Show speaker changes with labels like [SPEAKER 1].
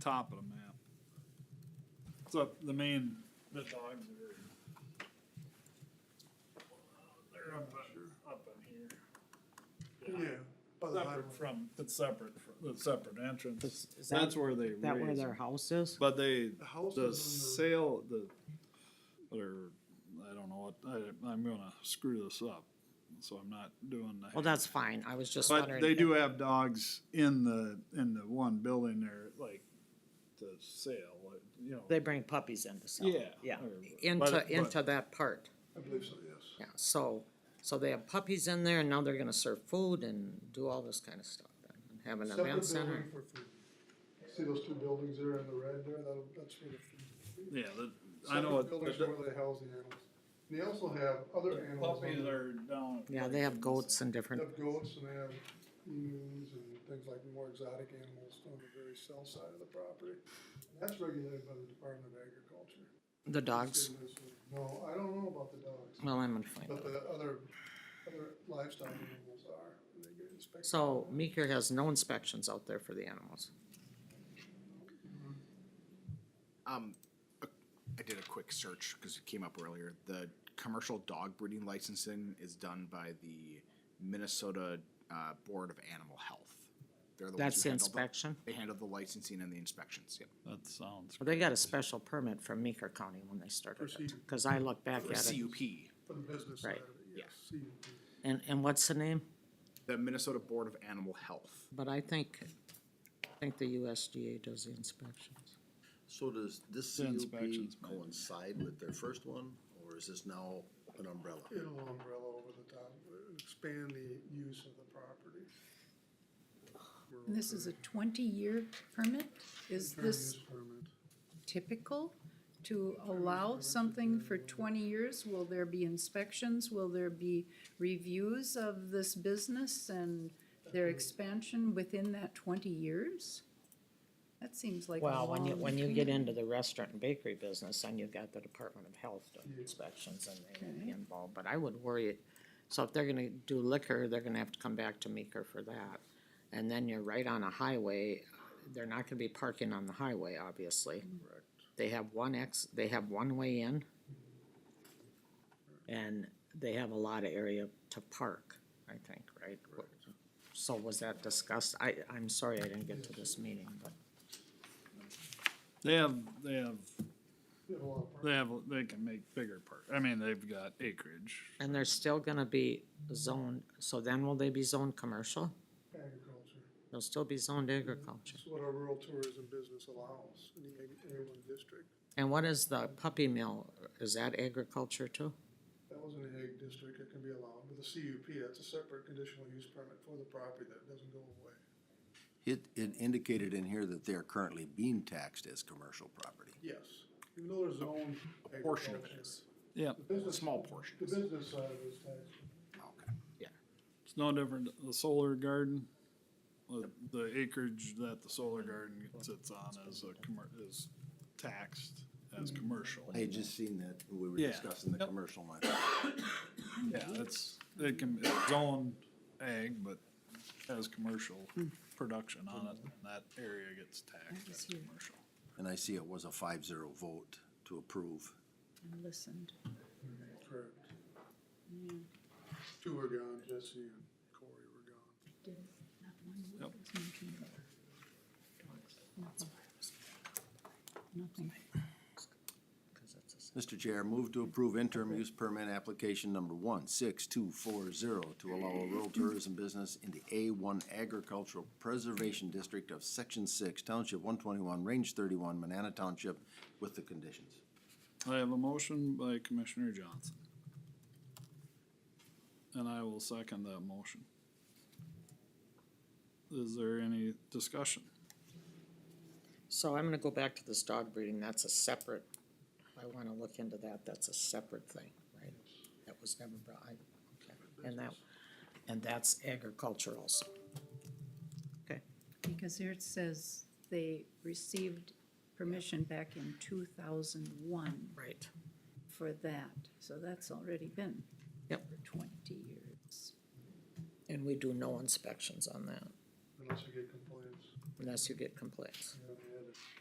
[SPEAKER 1] top of the map. It's up the main, the dogs are. They're up, in- up in here.
[SPEAKER 2] Yeah, by the highway.
[SPEAKER 1] Separate from, it's separate from, the separate entrance.
[SPEAKER 3] Is- is that-
[SPEAKER 1] That's where they
[SPEAKER 3] That where
[SPEAKER 1] raise
[SPEAKER 3] their
[SPEAKER 1] them.
[SPEAKER 3] house is?
[SPEAKER 1] But they,
[SPEAKER 2] The house
[SPEAKER 1] the
[SPEAKER 2] is in
[SPEAKER 1] sale, the, or, I don't know what, I, I'm gonna screw this up, so I'm not doing that.
[SPEAKER 3] Well, that's fine. I was just
[SPEAKER 1] But
[SPEAKER 3] wondering.
[SPEAKER 1] they
[SPEAKER 3] if-
[SPEAKER 1] do have dogs in the, in the one building there, like, the sale, like, you know.
[SPEAKER 3] They bring puppies in to sell.
[SPEAKER 1] Yeah,
[SPEAKER 3] Yeah,
[SPEAKER 1] or-
[SPEAKER 3] into,
[SPEAKER 1] but-
[SPEAKER 3] into that part.
[SPEAKER 2] the, I believe so, yes.
[SPEAKER 3] Yeah, so, so they have puppies in there and now they're gonna serve food and do all this kind of stuff. and Have an
[SPEAKER 2] Separate
[SPEAKER 3] event
[SPEAKER 2] building
[SPEAKER 3] center.
[SPEAKER 2] for food. See those two buildings there in the red there, that'll, that's where the food.
[SPEAKER 1] Yeah, the, I know
[SPEAKER 2] Separate Buildings
[SPEAKER 1] what,
[SPEAKER 2] where they house the animals. They also have other animals. on
[SPEAKER 1] Puppies
[SPEAKER 2] there.
[SPEAKER 1] are down.
[SPEAKER 3] Yeah, they have goats and
[SPEAKER 2] They
[SPEAKER 3] different,
[SPEAKER 2] have goats and they have emus and things like more exotic animals on the very south side of the property. And That's regulated by the Department of Agriculture.
[SPEAKER 3] the dogs.
[SPEAKER 2] No, I don't know about the dogs,
[SPEAKER 3] Well, I'm gonna find
[SPEAKER 2] but
[SPEAKER 3] out.
[SPEAKER 2] the other, other livestock animals are, and they get inspected.
[SPEAKER 3] So Meeker has no inspections out there for the animals.
[SPEAKER 4] Um, uh, I did a quick search because it came up earlier. The commercial dog breeding licensing is done by the Minnesota uh, Board of Animal Health. They're the ones
[SPEAKER 3] That's
[SPEAKER 4] who
[SPEAKER 3] the
[SPEAKER 4] handle
[SPEAKER 3] inspection.
[SPEAKER 4] They handle the licensing and the inspections. Yep.
[SPEAKER 1] That sounds.
[SPEAKER 3] Well, They got a special permit from Meeker County when they started it. Cause I look back
[SPEAKER 4] The
[SPEAKER 3] at it.
[SPEAKER 4] CUP,
[SPEAKER 2] For the business side of
[SPEAKER 3] Right.
[SPEAKER 2] it, yes. See,
[SPEAKER 3] And, and what's the name?
[SPEAKER 4] the Minnesota Board of Animal Health.
[SPEAKER 3] But I think, I think the USDA does the inspections.
[SPEAKER 5] So does this
[SPEAKER 1] The
[SPEAKER 5] CUP
[SPEAKER 1] inspections might be.
[SPEAKER 5] coincide with their first one, or is this now an umbrella?
[SPEAKER 2] It'll umbrella over the top, uh, expand the use of the property.
[SPEAKER 6] And This is a twenty-year permit? Is
[SPEAKER 2] Term
[SPEAKER 6] this
[SPEAKER 2] use permit.
[SPEAKER 6] typical to allow something for twenty years? Will there be inspections? Will there be reviews of this business and their expansion within that twenty years? That seems like a
[SPEAKER 3] Well, when you,
[SPEAKER 6] long
[SPEAKER 3] when you get
[SPEAKER 6] time.
[SPEAKER 3] into the restaurant and bakery business, then you've got the Department of Health doing inspections and they will be
[SPEAKER 6] Okay.
[SPEAKER 3] involved, but I would worry. So if they're gonna do liquor, they're gonna have to come back to Meeker for that. And then you're right on a highway, they're not gonna be parking on the highway, obviously. They have one ex, they have one way in. And they have a lot of area to park, I think, right? So was that discussed? I, I'm sorry I didn't get to this meeting, but.
[SPEAKER 1] They have, they have,
[SPEAKER 2] You have a lot of park-
[SPEAKER 1] they have, they can make bigger park, I mean, they've got acreage.
[SPEAKER 3] And they're still gonna be zoned, so then will they be zoned commercial?
[SPEAKER 2] agriculture.
[SPEAKER 3] They'll still be zoned agriculture.
[SPEAKER 2] It's what our rural tourism business allows in the ag- A one district.
[SPEAKER 3] And what is the puppy mill? Is that agriculture too?
[SPEAKER 2] That was in the Hague district, it can be allowed, but the CUP, that's a separate conditional use permit for the property that doesn't go away.
[SPEAKER 5] It, it indicated in here that they are currently being taxed as commercial property.
[SPEAKER 2] Yes, even though there's zone agriculture.
[SPEAKER 4] Portion of it is.
[SPEAKER 1] Yeah,
[SPEAKER 2] The business-
[SPEAKER 4] Small portion.
[SPEAKER 2] The business side of it is taxed.
[SPEAKER 4] Okay. Yeah.
[SPEAKER 1] it's no different, than the solar garden, the, the acreage that the solar garden sits on is a commer- is taxed as commercial.
[SPEAKER 5] I had just seen that, when we were
[SPEAKER 1] Yeah.
[SPEAKER 5] discussing the commercial one.
[SPEAKER 1] Yeah, it's, it can, it's own ag, but has commercial
[SPEAKER 3] Hmm.
[SPEAKER 1] production on it, and that area gets taxed as commercial.
[SPEAKER 5] And I see it was a five zero vote to approve.
[SPEAKER 6] I Listened.
[SPEAKER 2] Correct. Two were gone, Jesse and Corey were gone.
[SPEAKER 6] Not one word
[SPEAKER 1] Yep.
[SPEAKER 6] was mentioned about dogs. That's why I was- Nothing.
[SPEAKER 5] Mr. Chair, move to approve interim use permit application number one six two four zero to allow a rural tourism business in the A one agricultural preservation district of section six, township one twenty-one, range thirty-one, Manana Township, with the conditions.
[SPEAKER 1] I have a motion by Commissioner Johnson. And I will second that motion. Is there any discussion?
[SPEAKER 3] So I'm gonna go back to this dog breeding, that's a separate, I wanna look into that, that's a separate thing, right? That was never brought, I, okay. and that, and that's agricultural also. Okay.
[SPEAKER 6] Because here it says they received permission back in two thousand one
[SPEAKER 3] Right.
[SPEAKER 6] for that, so that's already been.
[SPEAKER 3] Yep.
[SPEAKER 6] For twenty years.
[SPEAKER 3] And we do no inspections on that
[SPEAKER 2] Unless you get complaints,
[SPEAKER 3] unless you get complaints.
[SPEAKER 2] you know, they had to